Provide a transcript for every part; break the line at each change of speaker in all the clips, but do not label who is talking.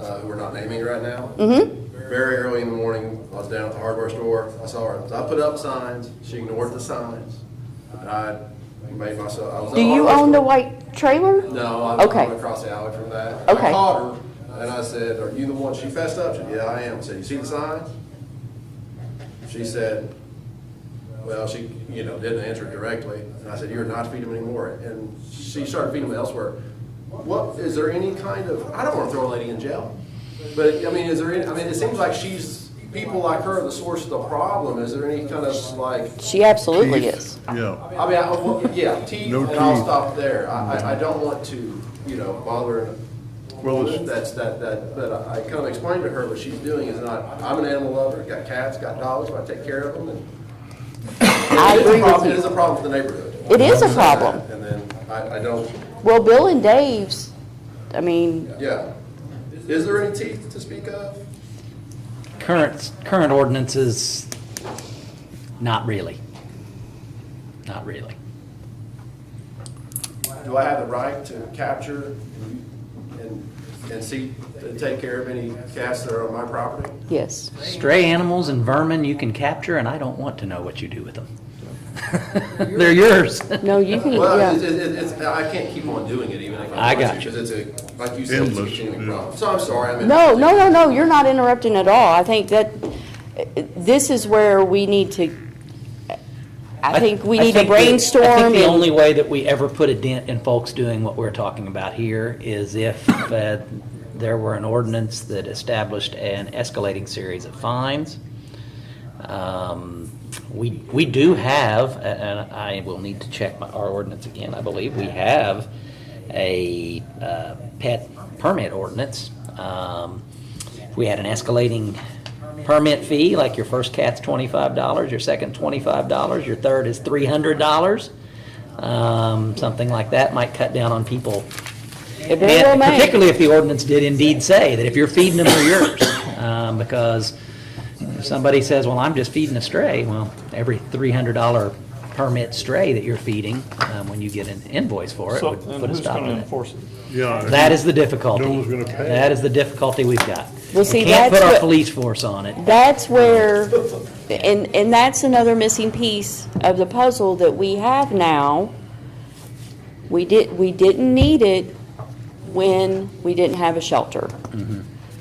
uh, who we're not naming right now. Very early in the morning, I was down at the hardware store, I saw her, so I put up signs, she ignored the signs. And I made myself, I was. at
Do you
hardware
own the
store.
white trailer?
No, I live
Okay.
across the alley from that.
Okay.
I called her and I said, are you the one, she fessed up, she said, yeah, I am. I said, you see the signs? She said, well, she, you know, didn't answer directly. And I said, you're not to feed them anymore. And she started feeding them elsewhere. What, is there any kind of, I don't want to throw a lady in jail. But, I mean, is there any, I mean, it seems like she's, people like her are the source of the problem. Is there any kind of like
She absolutely is.
Yeah,
I mean, I, well, yeah, teeth,
No
and I'll
teeth.
stop there. I, I, I don't want to, you know, bother.
Well, it's-
That's, that, that, but I kind of explained to her what she's doing is not, I'm an animal lover, got cats, got dogs, I take care of them, and.
I
It is a
agree with
problem- It is
you.
a problem for the neighborhood.
It is a problem.
And then, I, I don't,
Well, Bill and Dave's, I mean,
yeah. Is there any teeth to speak of?
Current, current ordinance is not really. Not really.
Do I have the right to capture and, and see, to take care of any cats that are on my property?
yes.
Stray animals and vermin you can capture, and I don't want to know what you do with them. They're yours.
No, you can,
Well, it's,
yeah.
it's, it's, I can't keep on doing it even if I
I
want
got
to,
you.
because it's a, like you said, it's a
Endless,
continuing
yeah.
problem. So I'm sorry, I mean.
No, no, no, no, you're not interrupting at all. I think that, this is where we need to, I think we
I
need to
think the- I
brainstorm
think the
and,
only way that we ever put a dent in folks doing what we're talking about here is if uh, there were an ordinance that established an escalating series of fines. Um, We, we do have, a- and I will need to check my, our ordinance again, I believe, we have a uh, pet permit ordinance. Um, If we had an escalating permit fee, like your first cat's twenty-five dollars, your second twenty-five dollars, your third is three hundred dollars, um, something like that might cut down on people.
It very well
And
may.
Particularly if the ordinance did indeed say that if you're feeding them, they're yours, um, because if somebody says, well, I'm just feeding a stray, well, every $300 permit stray that you're feeding, um, when you get an invoice for it,
So,
would
and
put a
who's
stop
gonna
on it.
enforce it?
yeah.
That is the difficulty.
No one's gonna pay.
That is the difficulty we've got.
Well, see,
We can't put
that's
our
what-
police force on it.
that's where, and, and that's another missing piece of the puzzle that we have now. We did, we didn't need it when we didn't have a shelter.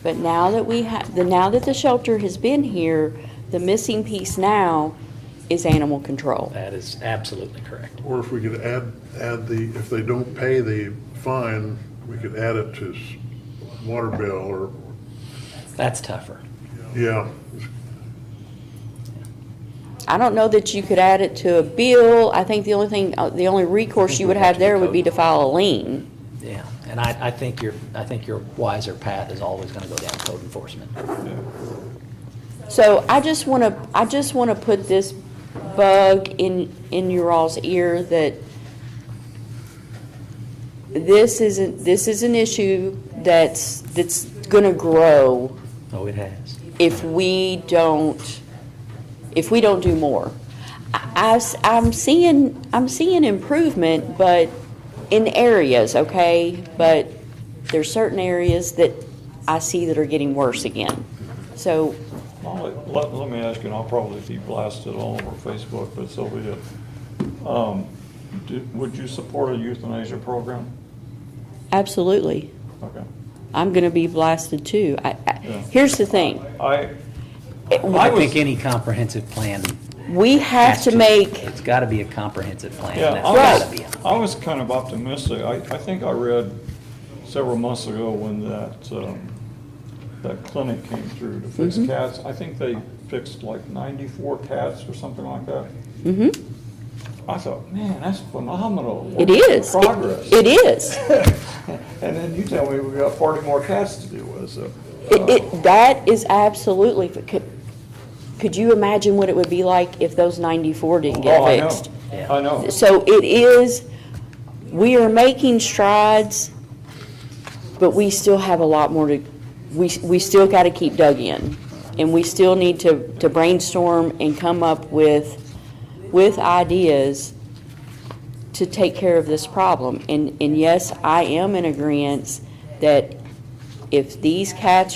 But now that we have, the, now that the shelter has been here, the missing piece now is animal control.
That is absolutely correct.
Or if we could add, add the, if they don't pay the fine, we could add it to s- water bill or,
That's tougher.
yeah.
I don't know that you could add it to a bill. I think the only thing, uh, the only recourse you would have there would be to file a lien.
Yeah, and I, I think your, I think your wiser path is always going to go down code enforcement.
So I just want to, I just want to put this bug in, in your all's ear that this isn't, this is an issue that's, that's going to grow
Oh, it has.
if we don't, if we don't do more. I, am seeing, I'm seeing improvement, but in areas, okay? But there's certain areas that I see that are getting worse again. So
Well, Let, let- let me ask you, and I'll probably be blasted all over Facebook, but so be it. Um, do- Would you support a euthanasia program?
Absolutely.
Okay.
I'm going to be blasted too. I, I,
Yeah.
here's the thing.
I,
I
I was-
think any comprehensive plan
We have to make,
It's gotta be a comprehensive plan,
yeah,
and
I
that's gotta
was,
be. a-
I was kind of optimistic. I, I think I read several months ago when that, um, that clinic came through to fix
Mm-hmm.
cats. I think they fixed like ninety-four cats or something like that.
Mm-hmm.
I thought, man, that's phenomenal.
it is. It-
Progress.
It is.
And then you tell me we got forty more cats to deal with, so. uh,
It, it, that is absolutely, could, could you imagine what it would be like if those 94 didn't
Oh,
get
I know.
fixed?
I know.
So it is, we are making strides, but we still have a lot more to, we, we still got to keep dug in. And we still need to, to brainstorm and come up with, with ideas to take care of this problem. And, and yes, I am in agreement that if these cats